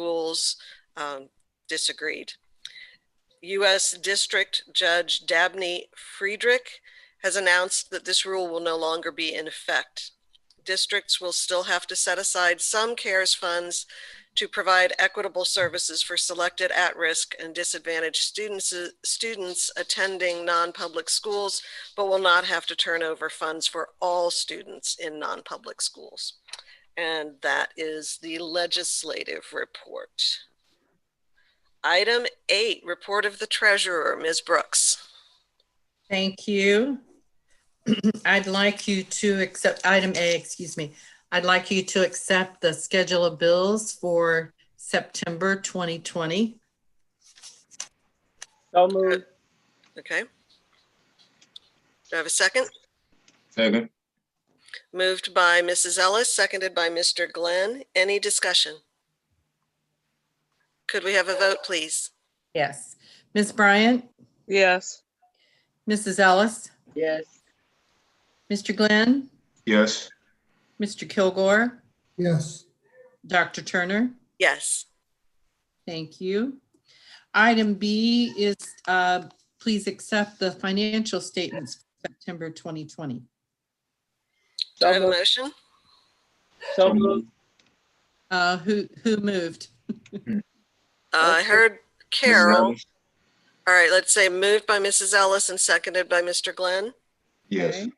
schools um, disagreed. U.S. District Judge Dabney Friedrich has announced that this rule will no longer be in effect. Districts will still have to set aside some CARES funds to provide equitable services for selected at-risk and disadvantaged students, students attending non-public schools, but will not have to turn over funds for all students in non-public schools. And that is the legislative report. Item eight, report of the treasurer, Ms. Brooks. Thank you. I'd like you to accept, item A, excuse me. I'd like you to accept the schedule of bills for September 2020. So moved. Okay. Do I have a second? Second, Moved by Mrs. Ellis, seconded by Mr. Glenn. Any discussion? Could we have a vote, please? Yes. Ms. Bryant, Yes. Mrs. Ellis, Yes. Mr. Glenn, yes, Mr. Kilgore, yes, Dr. Turner. Yes. Thank you. Item B is, uh, please accept the financial statements for September 2020. Do I So have a moved. motion? So moved. Uh, Who, who moved? Uh, I Okay. heard Carol. Ellis. All right, let's say moved by Mrs. Ellis and seconded by Mr. Glenn. yes, Okay.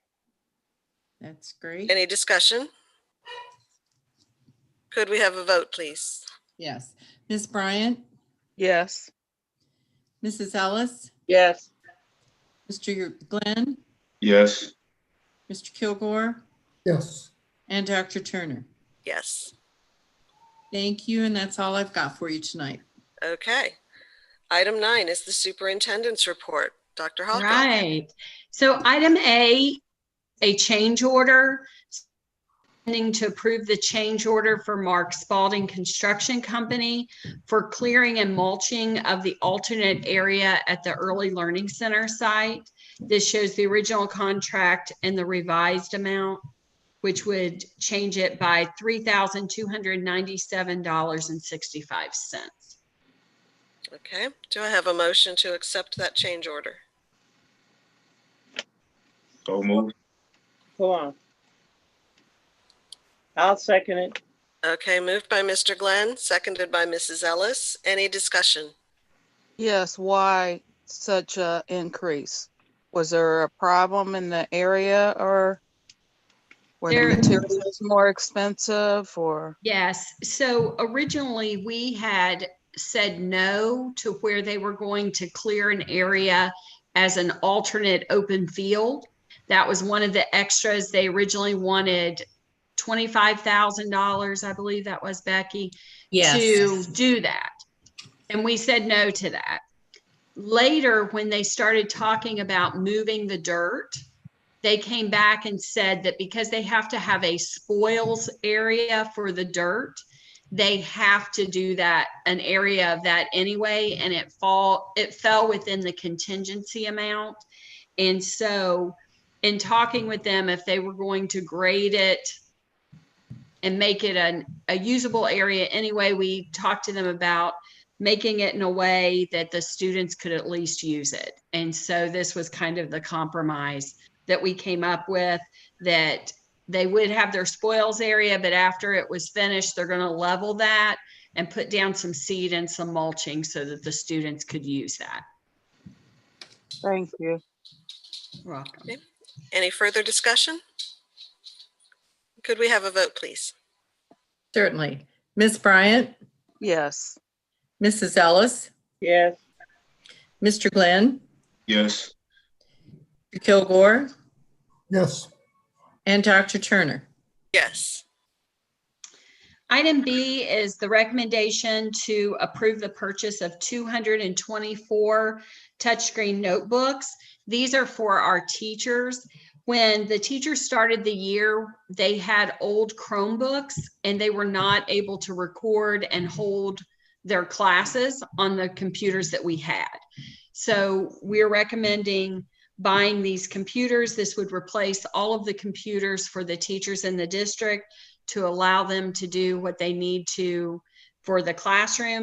That's great. Any discussion? Could we have a vote, please? Yes. Ms. Bryant, Yes. Mrs. Ellis, Yes. Mr. Glenn, yes, Mr. Kilgore, yes. and Dr. Turner. Yes. Thank you, and that's all I've got for you tonight. Okay. Item nine is the superintendent's report. Dr. Hawkins. Right. So item A, a change order. Pending to approve the change order for Mark Spalding Construction Company for clearing and mulching of the alternate area at the Early Learning Center site. This shows the original contract and the revised amount, which would change it by $3,297.65. Okay, do I have a motion to accept that change order? so moved, Go on. I'll second it. Okay, moved by Mr. Glenn, seconded by Mrs. Ellis. Any discussion? Yes, why such a increase? Was there a problem in the area or were There- the materials more expensive or? Yes, so originally we had said no to where they were going to clear an area as an alternate open field. That was one of the extras. They originally wanted twenty-five thousand dollars, I believe that was Becky, to do that. And we said no to that. Later, when they started talking about moving the dirt, they came back and said that because they have to have a spoils area for the dirt, they have to do that, an area of that anyway, and it fall, it fell within the contingency amount. And so in talking with them, if they were going to grade it and make it an, a usable area anyway, we talked to them about making it in a way that the students could at least use it. And so this was kind of the compromise that we came up with that they would have their spoils area, but after it was finished, they're going to level that and put down some seed and some mulching so that the students could use that. Thank you. You're welcome. Any further discussion? Could we have a vote, please? Certainly. Ms. Bryant, Yes, Mrs. Ellis, Yes. Mr. Glenn, yes, Mr. Kilgore, Yes, and Dr. Turner. Yes. Item B is the recommendation to approve the purchase of 224 touchscreen notebooks. These are for our teachers. When the teachers started the year, they had old Chromebooks and they were not able to record and hold their classes on the computers that we had. So we're recommending buying these computers. This would replace all of the computers for the teachers in the district to allow them to do what they need to for the classroom